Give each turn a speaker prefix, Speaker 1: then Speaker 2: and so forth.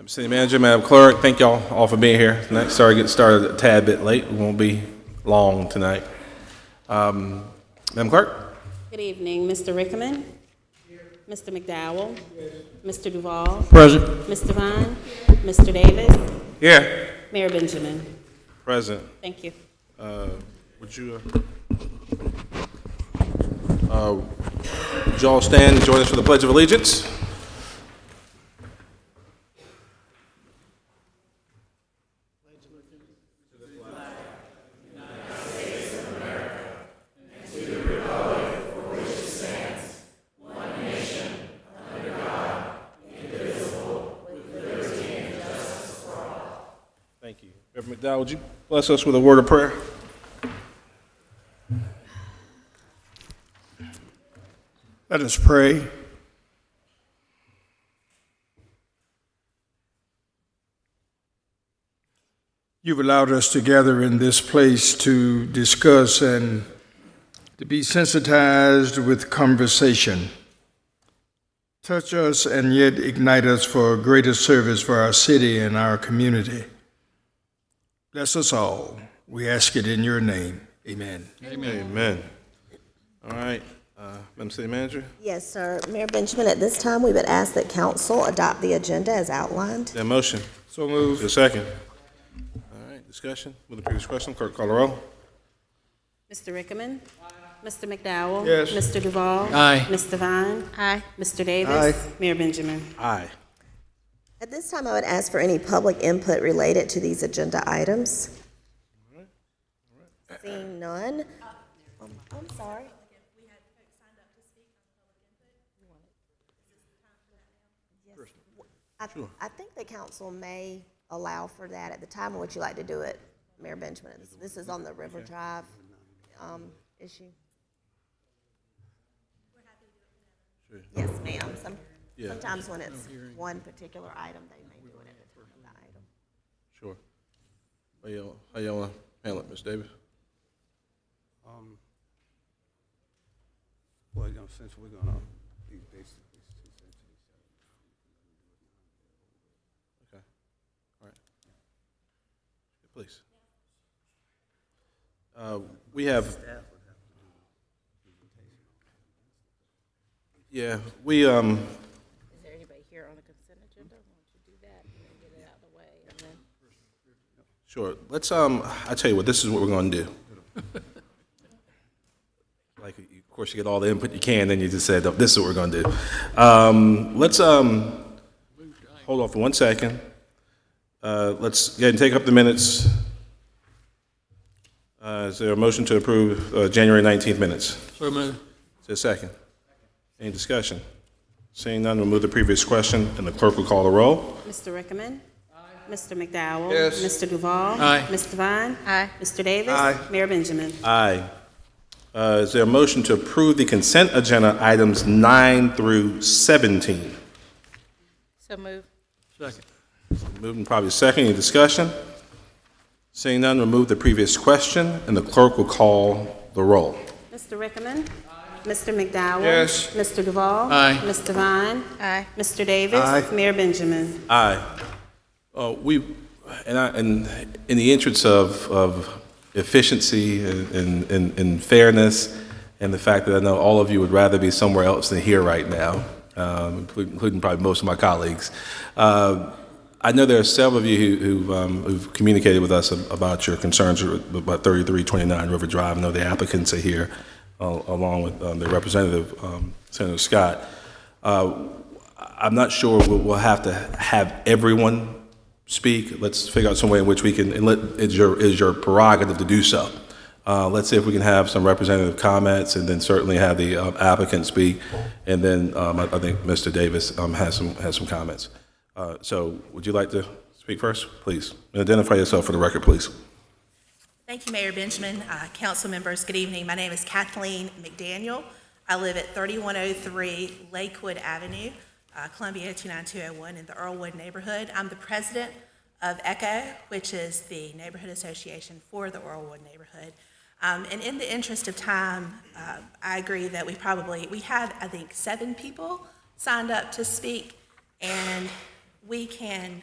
Speaker 1: Madam City Manager, Madam Clerk, thank y'all all for being here tonight. Sorry to get started a tad bit late. We won't be long tonight. Um, Madam Clerk?
Speaker 2: Good evening, Mr. Rickman. Mr. McDowell. Mr. Duval.
Speaker 3: Present.
Speaker 2: Ms. Devine. Mr. Davis.
Speaker 1: Here.
Speaker 2: Mayor Benjamin.
Speaker 1: Present.
Speaker 2: Thank you.
Speaker 1: Would you, uh, uh, would you all stand and join us for the Pledge of Allegiance? Thank you. Reverend McDowell, would you bless us with a word of prayer?
Speaker 3: Let us pray. You've allowed us to gather in this place to discuss and to be sensitized with conversation. Touch us and yet ignite us for greater service for our city and our community. Bless us all. We ask it in your name. Amen.
Speaker 1: Amen. All right, uh, Madam City Manager,
Speaker 4: Yes, sir. Mayor Benjamin, at this time, we would ask that council adopt the agenda as outlined.
Speaker 1: that motion,
Speaker 3: So moved.
Speaker 1: your second. All right, discussion, with the previous question, clerk call the roll.
Speaker 2: Mr. Rickman. Mr. McDowell.
Speaker 3: Yes.
Speaker 2: Mr. Duval.
Speaker 3: Aye.
Speaker 2: Ms. Devine. Aye. Mr. Davis.
Speaker 3: Aye.
Speaker 2: Mayor Benjamin.
Speaker 1: Aye.
Speaker 4: At this time, I would ask for any public input related to these agenda items. Seeing none. Um, I'm sorry. Yes. I I think the council may allow for that at the time. Would you like to do it, Mayor Benjamin? It's- This is on the River Drive um, issue. Yes, ma'am. Some- Sometimes when it's one particular item, they may do it at the time of the item.
Speaker 1: Sure. How y'all, how y'all wanna handle it, Ms. Davis?
Speaker 5: Um, Well, you know, since we're gonna be basically two centuries.
Speaker 1: Okay, all right. Please. Uh, we have. Yeah, we, um,
Speaker 6: Is there anybody here on the consent agenda? Why don't you do that and then get it out of the way and then?
Speaker 1: Sure. Let's, um, I tell you what, this is what we're gonna do. Like, of course, you get all the input you can, then you just said, this is what we're gonna do. Um, let's, um, hold off for one second. Uh, let's go ahead and take up the minutes. Uh, is there a motion to approve, uh, January nineteenth minutes?
Speaker 7: So moved.
Speaker 1: Is there a second? Any discussion? Seeing none, we'll move to the previous question, and the clerk will call the roll.
Speaker 2: Mr. Rickman. Mr. McDowell. Yes. Mr. Duval.
Speaker 7: Aye.
Speaker 2: Ms. Devine.
Speaker 6: Aye.
Speaker 2: Mr. Davis. Mayor Benjamin.
Speaker 1: Aye. Uh, Is there a motion to approve the consent agenda items nine through 17?
Speaker 6: So move.
Speaker 7: Second.
Speaker 1: Moving probably second, any discussion? Seeing none, we'll move the previous question, and the clerk will call the roll.
Speaker 2: Mr. Rickman. Mr. McDowell. Yes. Mr. Duval.
Speaker 7: Aye.
Speaker 2: Ms. Devine.
Speaker 6: Aye.
Speaker 2: Mr. Davis.
Speaker 3: Aye.
Speaker 2: Mayor Benjamin.
Speaker 1: Aye. Uh, We, and I, and in the interest of, of efficiency and, and, and fairness, and the fact that I know all of you would rather be somewhere else than here right now, um, including including probably most of my colleagues, uh, I know there are several of you who, who've, um, who've communicated with us about your concerns about 3329 River Drive. I know the applicants are here, uh, along with um, their representative, um, Senator Scott. I'm not sure we'll, we'll have to have everyone speak. Let's figure out some way in which we can, and let, it's your, is your prerogative to do so. Uh, let's see if we can have some representative comments and then certainly have the uh, applicant speak. And then, um, I, I think Mr. Davis, um, has some, has some comments. Uh, so would you like to speak first, please? And identify yourself for the record, please.
Speaker 8: Thank you, Mayor Benjamin. Uh, Council members, good evening. My name is Kathleen McDaniel. I live at 3103 Lakewood Avenue, uh, Columbia 29201 in the Earlwood neighborhood. I'm the president of ECHO, which is the neighborhood association for the Earlwood neighborhood. Um, And in the interest of time, uh, I agree that we probably, we have, I think, seven people signed up to speak, and we can